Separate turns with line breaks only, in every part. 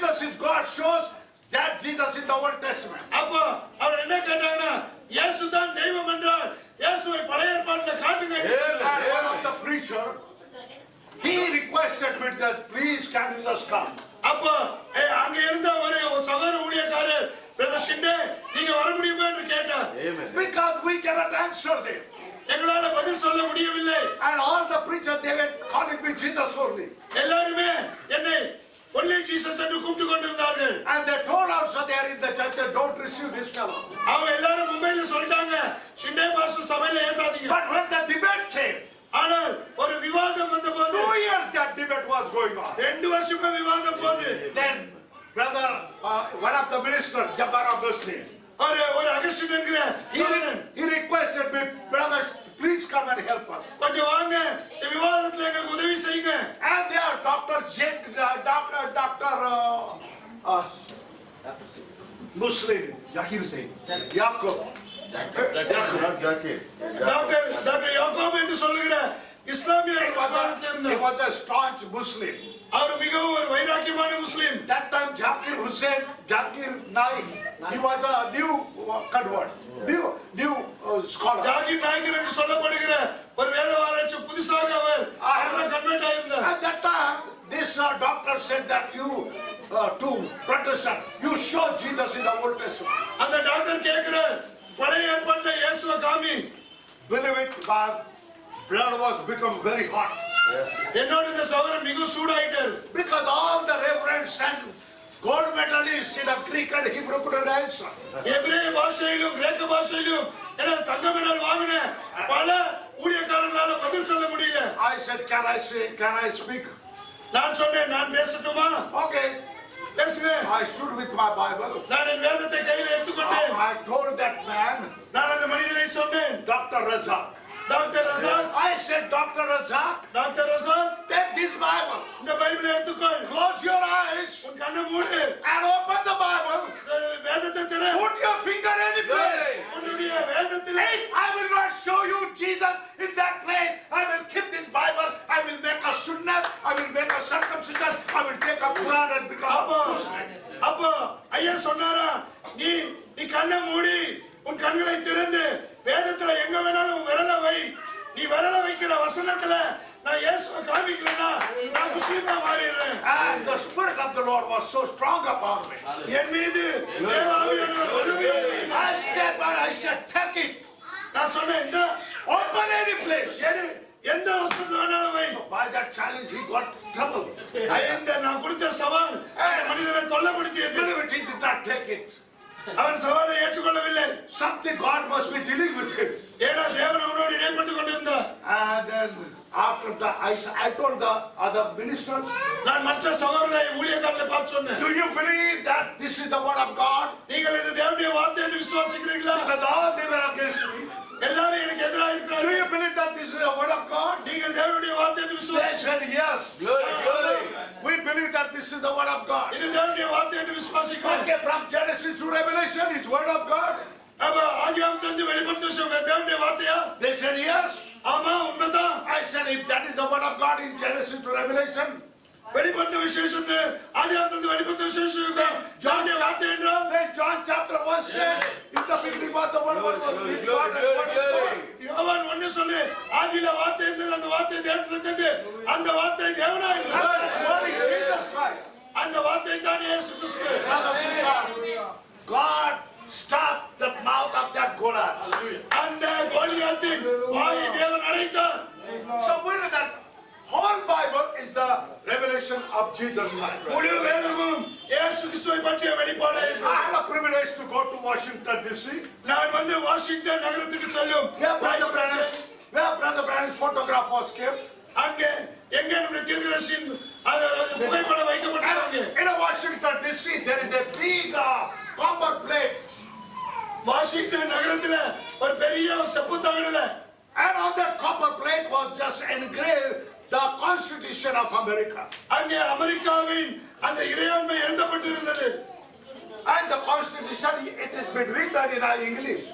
That shows that Jesus in the Old Testament.
அப்போ அவர் என்ன கேட்டாங்கன்னா இயேசு தான் தெய்வம் என்றால் இயேசுவை பழைய ஏற்பாட்டில் காட்டுங்க என்று சொன்னார்.
And one of the preacher, he requested me that please can you just come?
அப்போ ஏ, அங்க இருந்த ஒரு ஒரு சகோதர ஊழியக்காரர் பிரதர் ஷிண்டே நீங்க வர முடியுமா என்று கேட்டார்
Because we cannot answer them.
எங்களால பதில் சொல்ல முடியவில்லை
And all the preachers, they were calling me Jesus only.
எல்லாருமே என்னை ஒன்லி ஜீசஸ் என்று கூப்பிட்டு கொண்டிருந்தார்கள்
And they told also they are in the church and don't receive this fellow.
அவங்க எல்லாரும் மும்பையில சொல்லிட்டாங்க ஷிண்டே பாஸ்டர் சபையில ஏத்தாதீங்க
But when the debate came,
ஆனால் ஒரு விவாதம்
two
வந்தபோது
years that debate was going on.
ரெண்டு வருஷமா விவாதம் போது
Then brother, uh, one of the ministers, Jabbar Augustine,
ஒரு ஒரு அகஸ்டின் என்கிற
he,
Cholan
he requested me, brother, please come and help us.
கொஞ்சம் வாங்க இந்த விவாதத்துல எங்களுக்கு உதவி செய்யுங்க
And there, Dr. J, uh, Dr. Dr. Uh, uh, Muslim,
Zakir Hussain.
Yaqub.
Not Zakir.
Doctor doctor Yaqub என்று சொல்லுகிற இஸ்லாமிய
He was,
விவாதத்துல
a, he
இருந்தார்
was a staunch Muslim.
அவர் மிகவும் ஒரு வைராக்கியமான முஸ்லீம்
That time, Zakir Hussain, Zakir Naik, he was a new uh, convert, new, new uh, scholar.
Zakir நாயகர் என்று சொல்லப்படுகிற ஒரு வேத ஆராய்ச்சி புதுசாக அவர் கன்வெர்ட் ஆயிருந்தார்
At that time, this uh, doctor said that you, uh, to Protestant, you show Jesus in the Old Testament.
அந்த doctor கேட்கிற பழைய ஏற்பாட்டுல இயேசுவ காமி
Believe it, God, blood was become very hot.
என்னோட இந்த சவரன் மிகவும் சூடாயிட்டார்
Because all the reverends and gold medalists in the Greek and Hebrew couldn't answer.
எபிரேய பாஷையிலும் கிரேக்க பாஷையிலும் என தங்க மெடல் வாங்கின பல ஊழியக்காரர்களால பதில் சொல்ல முடியல
I said, can I say, can I speak?
நான் சொன்னேன் நான் பேசட்டுமா
Okay,
பேசுங்க
I stood with my Bible.
நான் என் வேதத்தை கையில எடுத்துக்கொண்டேன்
I told that man,
நான் அந்த மனிதனை சொன்னேன்
Dr. Razak.
Doctor Razak
I said, Dr. Razak,
doctor Razak
take this Bible,
இந்த பைபிளை எடுத்துக்கொள்
close your eyes
உன் கண்ணை மூடு
and open the Bible,
இந்த வேதத்தை திற
put your finger any place.
உன்னுடைய வேதத்திலே
If I will not show you Jesus in that place, I will keep this Bible, I will make a sunnah, I will make a circumcision, I will take a Quran and become
அப்போ
a Muslim.
அப்போ ஐயா சொன்னாரா நீ நீ கண்ணை மூடி உன் கண்களை திறந்து வேதத்துல எங்க வேணாலும் உன் விரலை வை நீ விரலை வைக்கிற வசனத்துல நான் இயேசுவை காமிக்கலனா நான் முஸ்லீமா மாறிடுறேன்
And Ah, the Spirit of the Lord was so strong upon me.
என் மீது தேவாவியானவர் வல்லமையாக இருந்தார்.
I stand by, I said, take it,
நான் சொன்னேன் இந்த
open any place.
எடு எந்த வசனத்துல வேணாலும் வை
By that challenge, he got trouble.
ஐயந்த நான் கொடுத்த சவால் அந்த மனிதனை தொல்லப்படுத்தியது
Believe it, he did not take it.
அவன் சவாலை ஏற்றுக்கொள்ளவில்லை
Something God must be dealing with him.
ஏன்னா தேவன் அவனோடு இடைப்பட்டு கொண்டிருந்தார்
And then after that, I, I told the other minister,
நான் மற்ற சகோதரனை ஊழியக்காரர்களை பார்த்து சொன்னேன்
do you believe that this is the word of God?
நீங்கள் இது தேவனுடைய வார்த்தை என்று விசுவாசிக்கிறீர்களா
Because all they were against me.
எல்லாரும் எனக்கு எதிராக
Do
இருக்கிறார்கள்
you believe that this is the word of God?
நீங்கள் தேவனுடைய வார்த்தை என்று
They
விசுவாசி
said yes. We believe that this is the word of God.
இது தேவனுடைய வார்த்தை என்று விசுவாசிக்கிறோம்
Okay, from Genesis to Revelation, it's word of God.
அப்ப ஆதியாமத்துல இருந்து வெளிப்படுத்த சொல்ற தேவனுடைய வார்த்தையா
They said yes.
ஆமா உண்மைதான்
I said, if that is the word of God in Genesis to Revelation,
வெளிப்படுத்த விசேஷத்து ஆதியாமத்துல இருந்து வெளிப்படுத்த விசேஷம் தேவனுடைய வார்த்தை என்றால்
then John chapter 1 said, in the beginning was the word was with God and word is God.
யோவான் ஒண்ணு சொல்லு ஆதியில வார்த்தை இருந்தது அந்த வார்த்தை தேவன் இருந்தது அந்த வார்த்தை தேவனா
And
இருந்தார்
that word is Jesus Christ.
அந்த வார்த்தை தான் இயேசு கிறிஸ்து
Brothers and sisters, God stopped the mouth of that Goliath.
அந்த கோலியாத்தின் வாயை தேவன் அடைத்தார்
So we know that whole Bible is the revelation of Jesus Christ.
முழு வேதமும் இயேசு கிறிஸ்துவை பற்றிய வெளிப்பாடு
I had a privilege to go to Washington DC.
நான் வந்து வாஷிங்டன் நகரத்துக்கு செல்லும்
Where Brother Brannan's, where Brother Brannan's photograph was kept.
அங்கே எங்க நம்முடைய தீர்க்கதரிசியின் அது அது புகைப்படம் வைக்கப்பட்டாங்க
And in Washington DC, there is a big uh, copper plate.
Washington நகரத்துல ஒரு பெரிய செப்பு தகடுல
And on that copper plate was just engraved the Constitution of America.
அங்கே அமெரிக்காவின் அந்த இறையாண்மை எழுதப்பட்டிருந்தது
And the Constitution, it has been written in uh, English.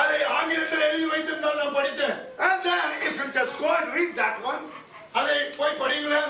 அதை ஆங்கிலத்தில் எழுதி வைத்திருந்தால் நான் படித்தேன்
And then if you just go and read that one,
அதை போய்